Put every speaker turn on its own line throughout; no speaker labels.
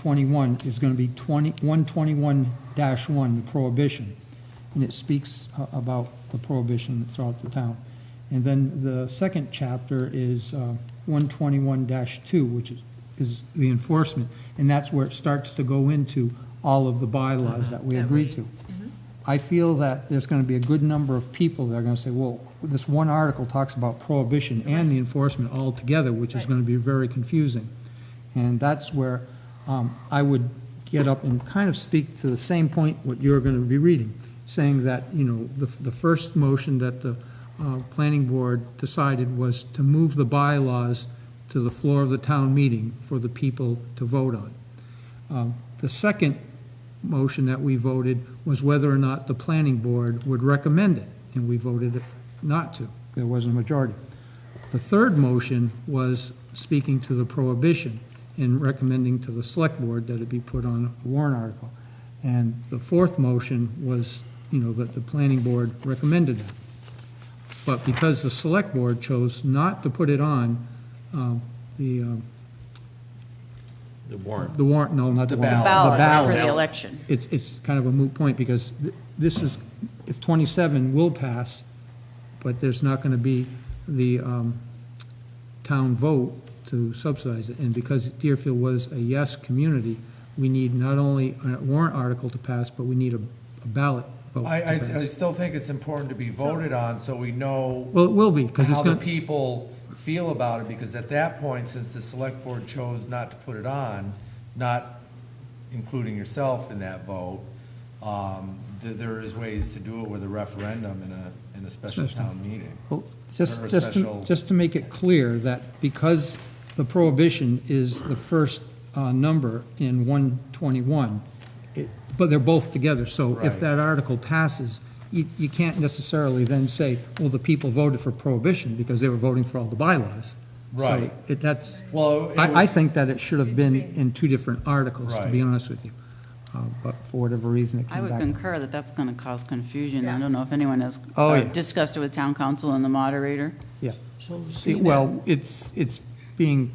121 is going to be 20, 121-1, the prohibition. And it speaks a- about the prohibition throughout the town. And then the second chapter is uh, 121-2, which is- is the enforcement. And that's where it starts to go into all of the bylaws that we
That
agreed
we-
to. I feel that there's going to be a good number of people that are going to say, well, this one article talks about prohibition and the enforcement all together, which is
Right.
going to be very confusing. And that's where um, I would get up and kind of speak to the same point what you're going to be reading, saying that, you know, the, the first motion that the uh, planning board decided was to move the bylaws to the floor of the town meeting for the people to vote on. Um, The second motion that we voted was whether or not the planning board would recommend it, and we voted it not to. There wasn't a majority. The third motion was speaking to the prohibition and recommending to the select board that it be put on a warrant article. And the fourth motion was, you know, that the planning board recommended it. But because the select board chose not to put it on, um, the, um,
The warrant.
the warrant, no, not the warrant.
ballot for the
ballot
election.
it's, it's kind of a moot point, because th- this is, if 27 will pass, but there's not going to be the um, town vote to subsidize it, and because Deerfield was a yes community, we need not only a warrant article to pass, but we need a a ballot vote
I, I,
to
I
pass.
still think it's important to be voted on, so we know
Well, it will be, because it's
how the
going,
people feel about it, because at that point, since the select board chose not to put it on, not including yourself in that vote, um, th- there is ways to do it with a referendum and a, and a special town meeting.
Well, Just,
Or a
just, to
special-
just to make it clear that because the prohibition is the first uh, number in 121, it- but they're both together, so if
Right.
that article passes, you, you can't necessarily then say, well, the people voted for prohibition because they were voting for all the bylaws. So
Right.
it- that's,
Well, it
I, I
would-
think that it should have been in two different articles, to be
Right.
honest with you. Uh, But for whatever reason, it
I
came
would
back.
concur that that's going to cause confusion. I don't know if anyone has
Oh,
uh,
yeah.
discussed it with town council and the moderator.
Yeah.
So
It- Well, it's, it's being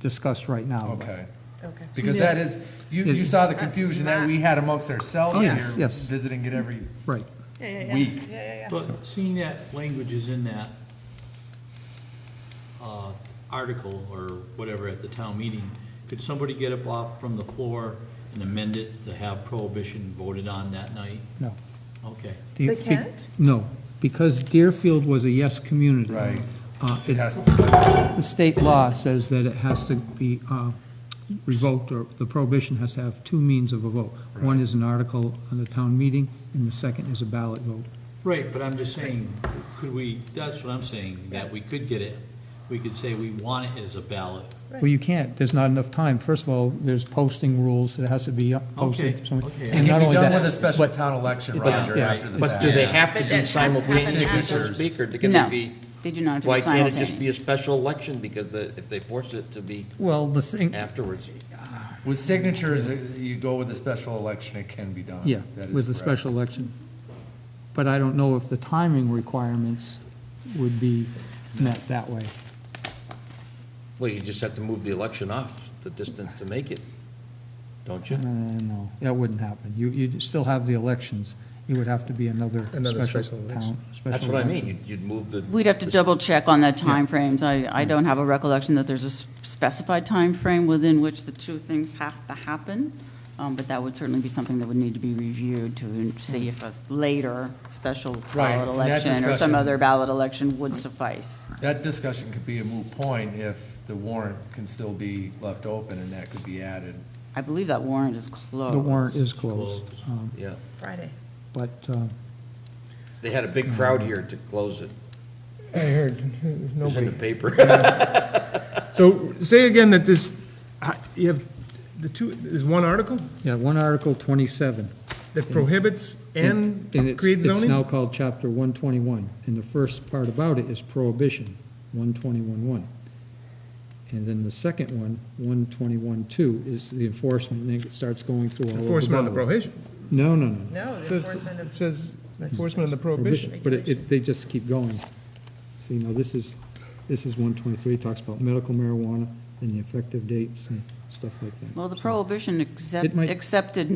discussed right now. but-
Okay.
Okay.
Because that is, you, you saw the confusion that we had amongst ourselves
Oh,
here,
yes, yes.
visiting it every
Right.
week.
But seeing that language is in that uh, article or whatever at the town meeting, could somebody get up off from the floor and amend it to have prohibition voted on that night?
No.
Okay.
Do you-
They can't?
No, because Deerfield was a yes community.
Right.
Uh,
It
it-
has,
The state law says that it has to be uh, revoked, or the prohibition has to have two means of a vote. One is an article on the town meeting, and the second is a ballot vote.
Right, but I'm just saying, could we, that's what I'm saying, that we could get it. We could say we want it as a ballot.
Well, you can't, there's not enough time. First of all, there's posting rules, it has to be up-
Okay,
posted. so-
okay. It
it
And
can
not
be
only
done
that,
with a special
but-
town election,
but-
Roger,
yeah.
after the
But do they
fact.
have to
But
be
that has to happen
simultaneous with the
afterwards.
speaker? They
No,
can be.
they do not have to be
Why can't it just be a
simultaneous.
special election? Because the, if they force it to be
Well, the thing,
afterwards,
With signatures, uh, you go with a special election, it can be done.
yeah,
That is
with a
correct.
special election. But I don't know if the timing requirements would be met that way.
well, you just have to move the election off the distance to make it, don't you?
Uh, No, that wouldn't happen. You, you'd still have the elections. It would have to be another
Another
special
special election.
town.
That's
special
what I mean.
election.
You'd- You'd move the.
We'd have to
the-
double check on the timeframes. I, I don't have a recollection that there's a s- specified timeframe within which the two things have to happen. Um, But that would certainly be something that would need to be reviewed to see if a later special
Right,
ballot
and that
election or some
discussion-
other ballot election would suffice.
That discussion could be a moot point if the warrant can still be left open and that could be added.
I believe that warrant is closed.
Oh.
The warrant is closed, um,
Yeah.
Friday.
but, uh,
They had a big crowd here to close it.
I heard,
It was in the
nobody.
paper.
So say again that this, I- you have, the two, there's one article
yeah, one Article 27.
that prohibits and
and it's-
creates
It's now
zoning?
called Chapter 121, and the first part about it is prohibition, 121.1. And then the second one, 121.2, is the enforcement, and then it starts going through all of the
Enforcement of the
bylaws.
prohibition.
No, no, no.
No,
It
the
says-
enforcement
it
of,
Says enforcement of the prohibition.
But it- it, they just keep going. See, now this is, this is one twenty-three, talks about medical marijuana and the effective dates and
stuff like that.
Well, the
So-
prohibition accept-
might-
accepted